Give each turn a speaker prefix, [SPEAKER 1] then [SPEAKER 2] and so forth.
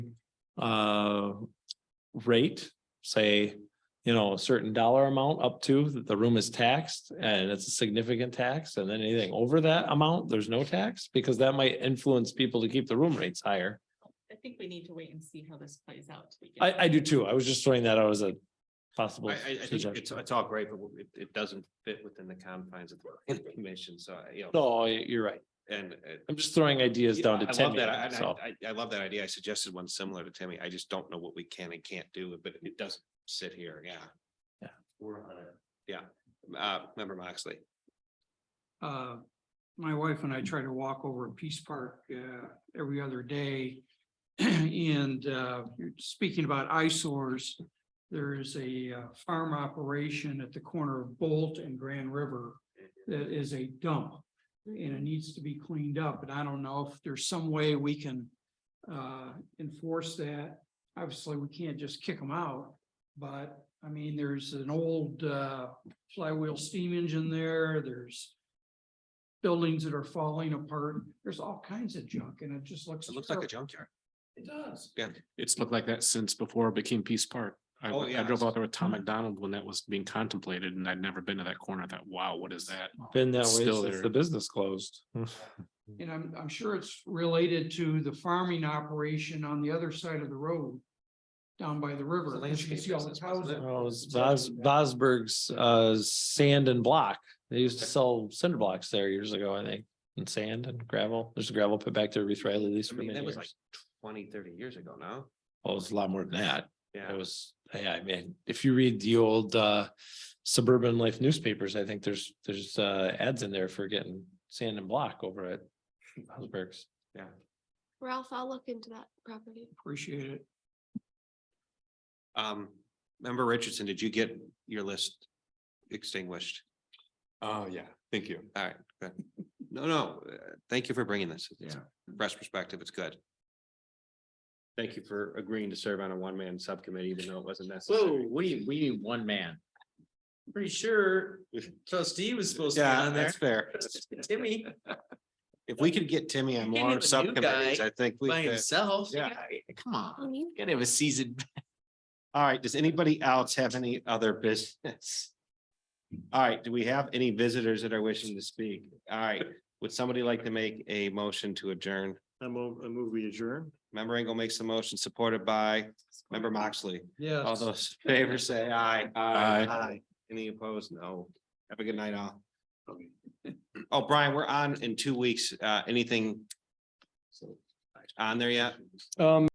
[SPEAKER 1] uh, rate, say, you know, a certain dollar amount up to, that the room is taxed and it's a significant tax, and then anything over that amount, there's no tax, because that might influence people to keep the room rates higher.
[SPEAKER 2] I think we need to wait and see how this plays out. to begin with.
[SPEAKER 1] I, I do too. I was just throwing that out as a
[SPEAKER 3] I,
[SPEAKER 1] possible.
[SPEAKER 3] I, I think
[SPEAKER 1] suggestion.
[SPEAKER 3] it's, it's all great, but it, it doesn't fit within the confines of the planning commission, so, I, you know,
[SPEAKER 1] No, y- you're right.
[SPEAKER 3] and. uh,
[SPEAKER 1] I'm just throwing ideas down to
[SPEAKER 3] I love
[SPEAKER 1] ten.
[SPEAKER 3] that. I-
[SPEAKER 1] So,
[SPEAKER 3] I, I, I love that idea. I suggested one similar to Timmy. I just don't know what we can and can't do, but it doesn't sit here, yeah.
[SPEAKER 1] Yeah.
[SPEAKER 3] We're on it. Yeah, uh, member Moxley.
[SPEAKER 4] uh, my wife and I try to walk over Peace Park, uh, every other day. And, uh, you're speaking about eyesores, there is a uh, farm operation at the corner of Bolt and Grand River that is a dump. And it needs to be cleaned up, and I don't know if there's some way we can, uh, enforce that. Obviously, we can't just kick them out, but, I mean, there's an old, uh, flywheel steam engine there, there's buildings that are falling apart, there's all kinds of junk and it just looks.
[SPEAKER 3] It looks like a
[SPEAKER 4] terrible.
[SPEAKER 3] junkyard.
[SPEAKER 4] It does.
[SPEAKER 5] It's looked like that since before it became Peace Park. I,
[SPEAKER 3] Oh, yeah.
[SPEAKER 5] I drove out there with Tom McDonald when that was being contemplated and I'd never been to that corner. I thought, wow, what is that?
[SPEAKER 1] been that way
[SPEAKER 5] Still
[SPEAKER 1] since the
[SPEAKER 5] there.
[SPEAKER 1] business closed.
[SPEAKER 4] And I'm, I'm sure it's related to the farming operation on the other side of the road. Down by the river.
[SPEAKER 3] It's a
[SPEAKER 4] because you can see
[SPEAKER 3] landscape
[SPEAKER 4] all the
[SPEAKER 3] business, wasn't
[SPEAKER 4] houses.
[SPEAKER 3] it?
[SPEAKER 1] Well, it was Bos- Bosberg's uh sand and block. They used to sell cinder blocks there years ago, I think, and sand and gravel. There's a gravel pit back there, Reese Riley leased
[SPEAKER 3] I
[SPEAKER 1] for
[SPEAKER 3] mean,
[SPEAKER 1] many
[SPEAKER 3] that was like
[SPEAKER 1] years.
[SPEAKER 3] twenty, thirty years ago now.
[SPEAKER 1] Oh, it's a lot more than that. It
[SPEAKER 3] Yeah.
[SPEAKER 1] was, yeah, I mean, if you read the old uh suburban life newspapers, I think there's, there's uh ads in there for getting sand and block over at Bosberg's.
[SPEAKER 6] Ralph, I'll look into that property.
[SPEAKER 4] Appreciate it.
[SPEAKER 3] Um, member Richardson, did you get your list extinguished?
[SPEAKER 7] Oh, yeah, thank you.
[SPEAKER 3] All right, good. No, no, uh, thank you for bringing this. It's fresh perspective. It's good. Thank you for agreeing to serve on a one-man subcommittee, even though it wasn't
[SPEAKER 8] Whoa,
[SPEAKER 3] necessary.
[SPEAKER 8] what do you, we need one man. Pretty sure trustee was supposed to be
[SPEAKER 3] Yeah,
[SPEAKER 8] on there.
[SPEAKER 3] that's fair.
[SPEAKER 8] Timmy
[SPEAKER 3] If we could get Timmy on
[SPEAKER 8] You can't
[SPEAKER 3] more
[SPEAKER 8] have a new
[SPEAKER 3] subcommittees,
[SPEAKER 8] guy
[SPEAKER 3] I think. we
[SPEAKER 8] by
[SPEAKER 3] could.
[SPEAKER 8] himself.
[SPEAKER 3] Yeah.
[SPEAKER 8] Come on,
[SPEAKER 6] Honey?
[SPEAKER 8] gotta have a seasoned.
[SPEAKER 3] All right, does anybody else have any other business? All right, do we have any visitors that are wishing to speak? All right, would somebody like to make a motion to adjourn?
[SPEAKER 8] I move, I move we adjourn.
[SPEAKER 3] Member Engel makes the motion supported by member Moxley.
[SPEAKER 4] Yeah.
[SPEAKER 3] All those in favor say aye.
[SPEAKER 5] Aye.
[SPEAKER 3] Any opposed? No. Have a good night all. Oh, Brian, we're on in two weeks. Uh, anything? On there yet?
[SPEAKER 1] Um,